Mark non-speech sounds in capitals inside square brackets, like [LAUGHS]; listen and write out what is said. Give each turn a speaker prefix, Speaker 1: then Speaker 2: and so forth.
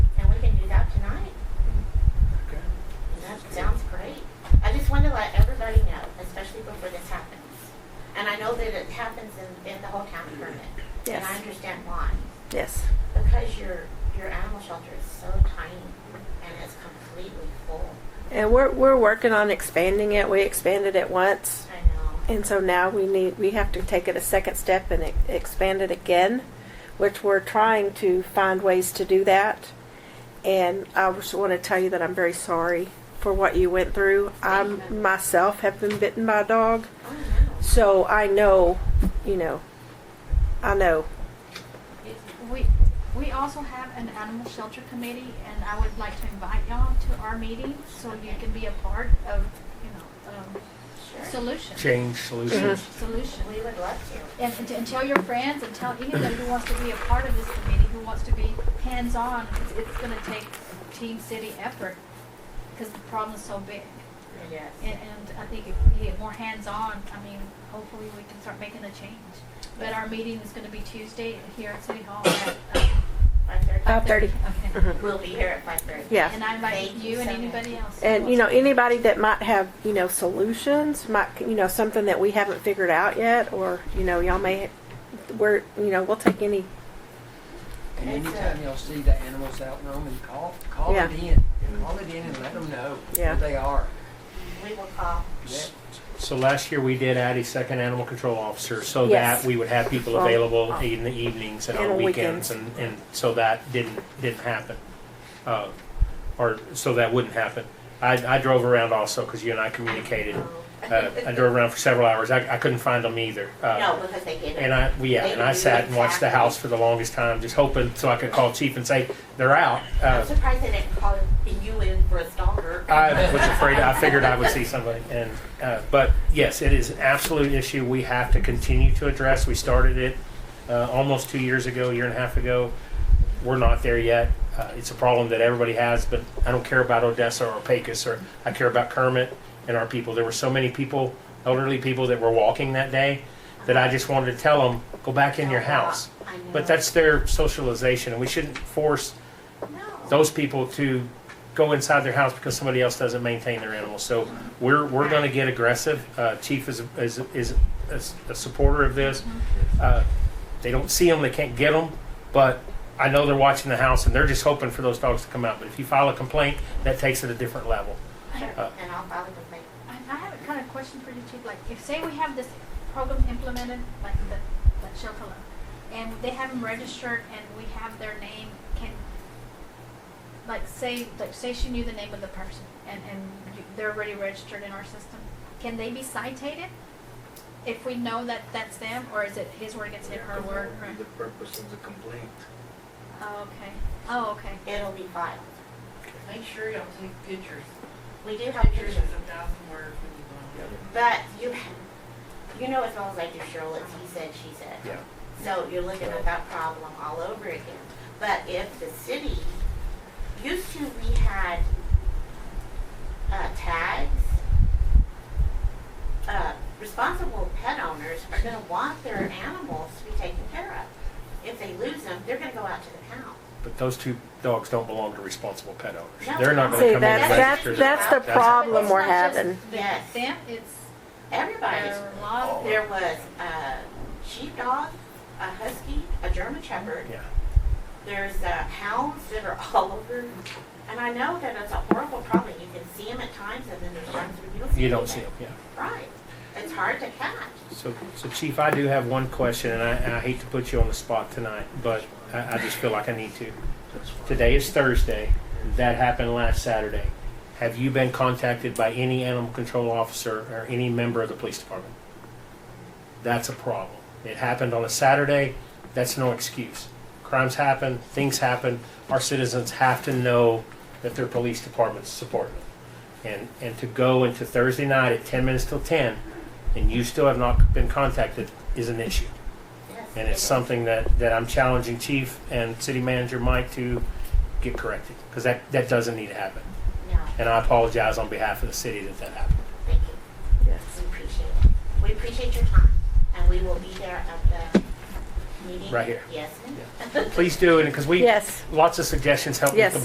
Speaker 1: happens in, in the whole town permit. And I
Speaker 2: Yes.
Speaker 1: understand why.
Speaker 2: Yes.
Speaker 1: Because your, your animal shelter is so tiny and it's completely full.
Speaker 2: And we're, we're working on expanding it. We expanded it once.
Speaker 1: I know.
Speaker 2: And so now we need, we have to take it a second step and e- expand it again, which we're trying to find ways to do that. And I just want to tell you that I'm very sorry for what you went through. I myself have been bitten by a dog,
Speaker 1: Oh, no.
Speaker 2: so I know, you know, I know.
Speaker 3: We, we also have an animal shelter committee, and I would like to invite y'all to our meeting so you can be a part of, you know, um,
Speaker 1: Sure.
Speaker 3: solution,
Speaker 4: change solutions.
Speaker 3: solution.
Speaker 1: We would love to.
Speaker 3: And, and, and tell your friends and tell anybody who wants to be a part of this committee, who wants to be hands-on, it's, it's gonna take team city effort, because the problem's so big.
Speaker 1: Yes.
Speaker 3: And, and I think if we get more hands-on, I mean, hopefully we can start making a change. But our meeting is gonna be Tuesday here at City Hall at, um,
Speaker 1: Five thirty.
Speaker 2: Five thirty.
Speaker 3: Okay.
Speaker 2: Mhm.
Speaker 1: We'll be here at five thirty.
Speaker 2: Uh, Yeah.
Speaker 3: And I invite
Speaker 1: Thank
Speaker 3: you
Speaker 1: you
Speaker 3: and
Speaker 1: so
Speaker 3: anybody else. who
Speaker 2: And you know
Speaker 3: wants
Speaker 2: anybody that might have you know solutions, might you know something that we haven't figured out yet, or you know y'all may, we're you know we'll take any
Speaker 5: And anytime y'all see the animals out in Roman, call, call it
Speaker 2: Yeah.
Speaker 5: in. Call it in and let them know
Speaker 2: Yeah.
Speaker 5: who they are.
Speaker 1: We will call.
Speaker 5: Yeah.
Speaker 4: So last year we did add a second animal control officer so
Speaker 2: Yes.
Speaker 4: that we would have people
Speaker 2: Well,
Speaker 4: available in the evenings and
Speaker 2: and
Speaker 4: on
Speaker 2: on
Speaker 4: weekends and, and so that didn't, didn't happen. Uh, Or, so that wouldn't happen. I, I drove around also because you and I communicated. Uh, I drove around for several hours. I, I couldn't find them either. Uh,
Speaker 1: No, because they get
Speaker 4: And
Speaker 1: it.
Speaker 4: I, yeah, and I sat and watched the house for the longest time, just hoping so I could call chief and say, they're out. Uh,
Speaker 1: I'm surprised they didn't call you in for a stalker.
Speaker 4: I was afraid. I figured I would see somebody, and uh, but yes, it is an absolute issue we have to continue to address. We started it uh, almost two years ago, a year and a half ago. We're not there yet. Uh, it's a problem that everybody has, but I don't care about Odessa or Pecos, or I care about Kermit and our people. There were so many people, elderly people, that were walking that day that I just wanted to tell them, go back in your house.
Speaker 1: I know.
Speaker 4: But that's their socialization, and we shouldn't force
Speaker 1: No.
Speaker 4: those people to go inside their house because somebody else doesn't maintain their animals. So we're, we're going to get aggressive. Uh, Chief is, is, is a s- a supporter of this.
Speaker 2: Mm-hmm.
Speaker 4: Uh, They don't see them, they can't get them, but I know they're watching the house and they're just hoping for those dogs to come out. But if you file a complaint, that takes it a different level.
Speaker 3: to-
Speaker 4: uh,
Speaker 1: And I'll file a complaint.
Speaker 3: I I have a kind of question for you, Chief, like, if, say we have this program implemented, like the, like Chocola, and they have them registered and we have their name, can, like, say, like, say she knew the name of the person and, and you- they're already registered in our system, can they be cited? If we know that that's them, or is it his word against her word? or-
Speaker 6: The purpose of the complaint.
Speaker 3: Oh, okay, oh, okay.
Speaker 1: It'll be filed.
Speaker 7: Make sure y'all take pictures,
Speaker 1: We do have
Speaker 7: pictures
Speaker 1: pictures,
Speaker 7: of the dog from where when you go.
Speaker 1: but you, you know as well as I do, Cheryl, it's he said, she said.
Speaker 4: Yeah.
Speaker 1: So you're looking at that problem all over again. But if the city, used to we had uh, tags, uh, responsible pet owners are going to want their animals to be taken care of. If they lose them, they're going to go out to the pound.
Speaker 4: But those two dogs don't belong to responsible pet
Speaker 1: No.
Speaker 4: owners. They're not going
Speaker 2: See,
Speaker 4: to come in
Speaker 2: that's,
Speaker 4: and register.
Speaker 2: that's,
Speaker 4: them.
Speaker 2: that's the
Speaker 4: That's-
Speaker 2: problem
Speaker 3: It's
Speaker 2: we're
Speaker 3: not just
Speaker 2: having.
Speaker 1: Yes.
Speaker 3: Them, it's
Speaker 1: Everybody's
Speaker 3: their law,
Speaker 1: There was a sheepdog, a husky, a German shepherd.
Speaker 4: Yeah.
Speaker 1: There's uh, hounds that are [LAUGHS] all over. And I know that it's a horrible problem. You can see them at times, and then there's times when you don't see them.
Speaker 4: You don't see them, yeah.
Speaker 1: Right. It's hard to catch.
Speaker 4: So, so Chief, I do have one question, and I, and I hate to put you on the spot tonight, but I, I just feel like I need to. Today is Thursday. That happened last Saturday. Have you been contacted by any animal control officer or any member of the police department? That's a problem. It happened on a Saturday. That's no excuse. Crimes happen, things happen. Our citizens have to know that their police departments support them. And, and to go into Thursday night at 10 minutes till 10 and you still have not been contacted is an issue.
Speaker 1: Yes.
Speaker 4: And it's something that, that I'm challenging Chief and City Manager Mike to get corrected, because that, that doesn't need to happen.
Speaker 1: No,
Speaker 4: And I apologize on behalf of the city that that happened.
Speaker 1: thank you.
Speaker 2: Yes.
Speaker 1: We appreciate it. We appreciate your time, and we will be there at the meeting.
Speaker 4: Right here.
Speaker 1: Yes, ma'am. [LAUGHS]
Speaker 4: Please do, and because we,
Speaker 2: Yes.
Speaker 4: lots of suggestions help with
Speaker 2: Yes.
Speaker 4: the